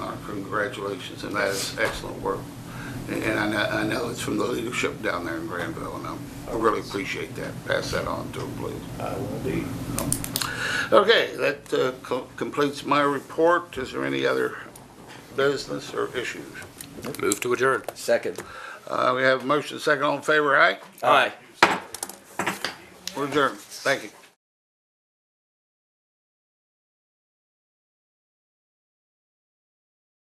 Uh, congratulations, and that is excellent work. And and I know, I know it's from the leadership down there in Granville, and I really appreciate that. Pass that on to them, please. I will indeed. Okay, that uh, co- completes my report. Is there any other business or issues? Move to adjourn. Second. Uh, We have a motion second on favor, aye? Aye. We're adjourned. Thank you.